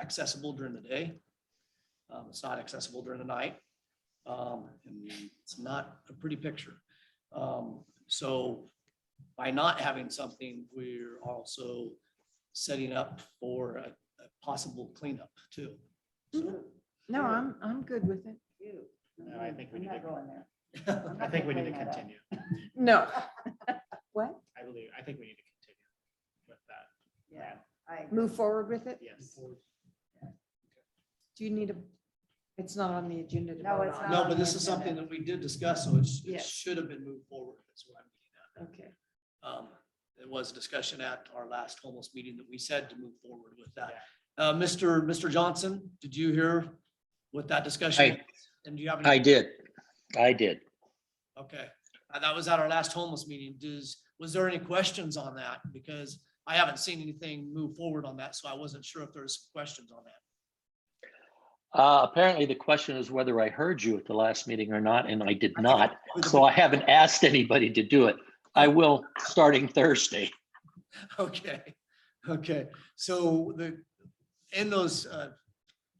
accessible during the day. Um, It's not accessible during the night. Um, And it's not a pretty picture. Um, So by not having something, we're also setting up for a a possible cleanup too. So, Mm-hmm. No, I'm, I'm good with it. No, I think we I'm need Mm-hmm. not to, going there. I think we need to uh, continue. No. What? I believe, I think we need to continue with that. Yeah, I, Move forward with it? Yes. Do you need a, it's not on the agenda to No, vote it's Mm-hmm. on. No, but this is something that we did discuss, so it's, it Yes. should have been moved forward. That's what I'm getting at. Okay, Um, It was a discussion at our last homeless meeting that we said to move forward with that. Yeah. Uh, Mr. Mr. Johnson, did you hear what that discussion? I- was? And do you have any? I did. I did. Okay, Uh, that was at our last homeless meeting. Does, was there any questions on that? Because I haven't seen anything move forward on that, so I wasn't sure if there's questions on that. Uh, apparently the question is whether I heard you at the last meeting or not, and I did not. So I haven't asked anybody to do it. I will starting Thursday. Okay, okay, so the, in those uh,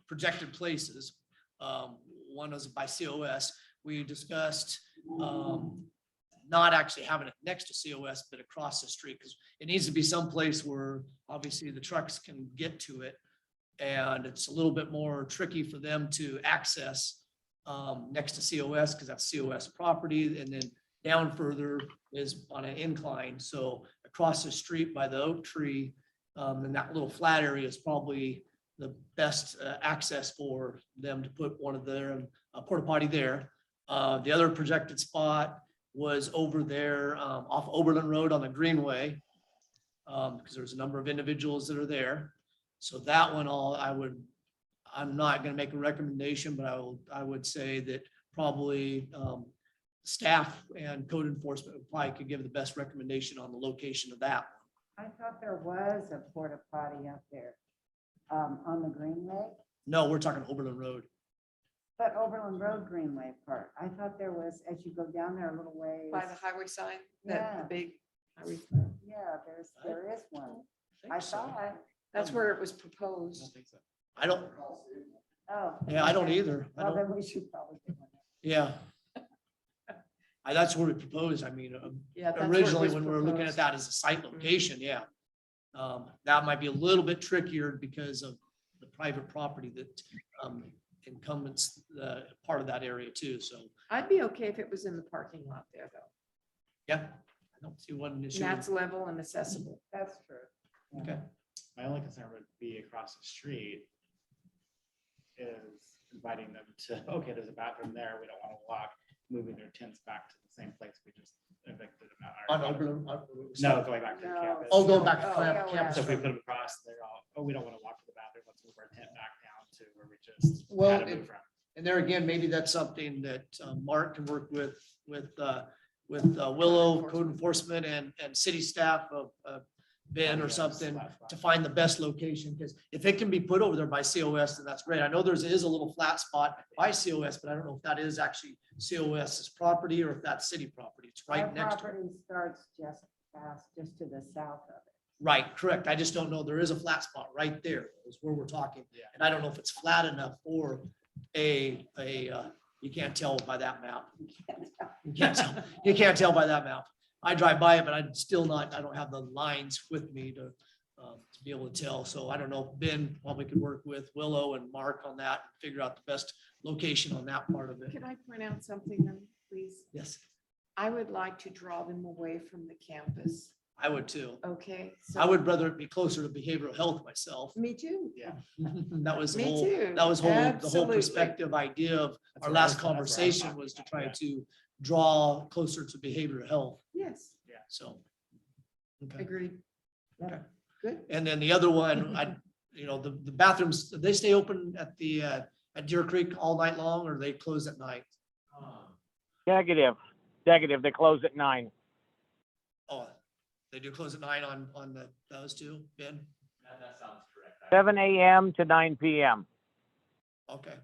projected places, um, one was by COS, we discussed um, not actually having it next to COS, but across the street, because it needs to be someplace where obviously the trucks can get to it. And it's a little bit more tricky for them to access um, next to COS, because that's COS property, and then down further is on an incline, so across the street by the oak tree, um, in that little flat area is probably the best uh, access for them to put one of their uh, porta potty there. Uh, the other projected spot was over there, um, off Oberlin Road on the Greenway. Um, because there's a number of individuals that are there. So that one all, I would, I'm not gonna make a recommendation, but I will, I would say that probably, um, staff and code enforcement probably could give the best recommendation on the location of that. I thought there was a porta potty up there um, on the Greenway, No, we're talking Oberlin Road. but Overland Road Greenway part. I thought there was, as you go down there a little ways. By the highway sign, that Yeah. the big, highway- Yeah, there's, there is one. I think so. saw it. that's Um, where it was I proposed. don't think so. I don't, Oh. yeah, I don't okay. either. I Well, don't, then we should probably. do one. yeah. I, that's what we proposed. I mean, um, Yeah. that's where it originally was when we were looking at proposed. that as a site location, yeah. Um, that might be a little bit trickier because of the private property that, um, incumbents, the part of that area too, so, I'd be okay if it was in the parking lot there, though. yeah. I don't see one issue. And that's level and accessible. That's true. Okay. My only concern would be across the street is inviting them to, okay, there's a bathroom there, we don't want to walk, moving their tents back to the same place we just evicted them On out. of. Oberlin. uh, on- No, going back to the No. campus. Oh, going back Oh, to clam- yeah, campus. So if we road. put them across, they're all, oh, we don't want to walk to the bathroom, let's move our tent back down to where we just Well, had to it- move from. And there again, maybe that's something that uh, Mark can work with, with, uh, with uh, Willow Code Enforcement and, and city staff of, of Ben or something to find the best location, because if it can be put over there by COS, then that's great. I know there's, is a little flat spot by COS, but I don't know if that is actually COS's property or if that's city property. It's Our right next to it. property starts just past, just to the south of it. Right, correct. I just don't know. There is a flat spot right there is where we're talking. Yeah. And I don't know if it's flat enough or a, a, uh, you can't tell by that map. You can't tell, you can't tell by that map. I drive by it, but I'm still not, I don't have the lines with me to, um, to be able to tell. So I don't know, Ben probably could work with Willow and Mark on that, figure out the best location on that part of it. Could I point out something then, please? Yes, I would like to draw them away from the campus, I would too. okay? I so- would rather it be closer to behavioral health myself. Me too. That was the Me whole, too, that was whole, the whole absolutely. perspective idea of That's our what I last was- that's where I was conversation talking was to about, try yeah. to draw closer to behavioral health, Yes, so. Okay. agreed. And then the other one, I, you know, the, the bathrooms, they stay open at the, uh, at Deer Creek all night long or they close at night? Negative. Negative. They close at nine. Oh, they do close at night on, on the, those two, Ben? Seven AM to nine PM. Okay,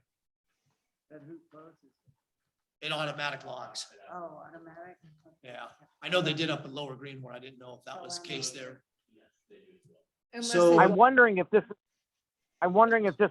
But who closes? in automatic locks, Oh, automatic. yeah. I know they did up in Lower Green where I didn't know if that was the case there. Unless So- they- I'm wondering if this, I'm wondering if this